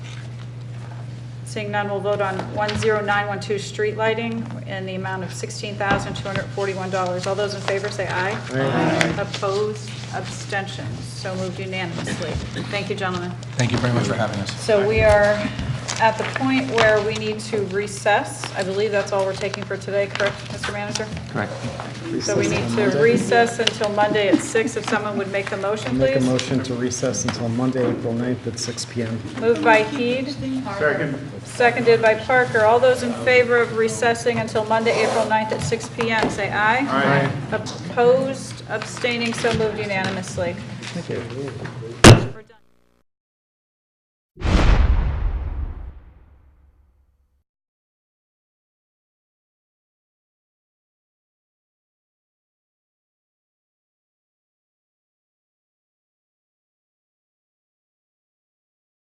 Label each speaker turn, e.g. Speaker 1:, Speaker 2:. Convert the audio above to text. Speaker 1: Seeing none, we'll vote on 10912, street lighting, in the amount of $16,241. All those in favor say aye. Aye. Opposed, abstentions, so moved unanimously. Thank you, gentlemen.
Speaker 2: Thank you very much for having us.
Speaker 1: So we are at the point where we need to recess. I believe that's all we're taking for today, correct, Mr. Manager?
Speaker 2: Correct.
Speaker 1: So we need to recess until Monday at 6. If someone would make a motion,
Speaker 3: Make a
Speaker 1: please.
Speaker 3: motion to recess until Monday, April 9th at 6 PM.
Speaker 1: Moved by Heed. Second. Seconded by Parker. All those in favor of recessing until Monday, April 9th at 6 PM, say aye. Aye. Opposed, abstaining, so moved unanimously.
Speaker 3: Thank you.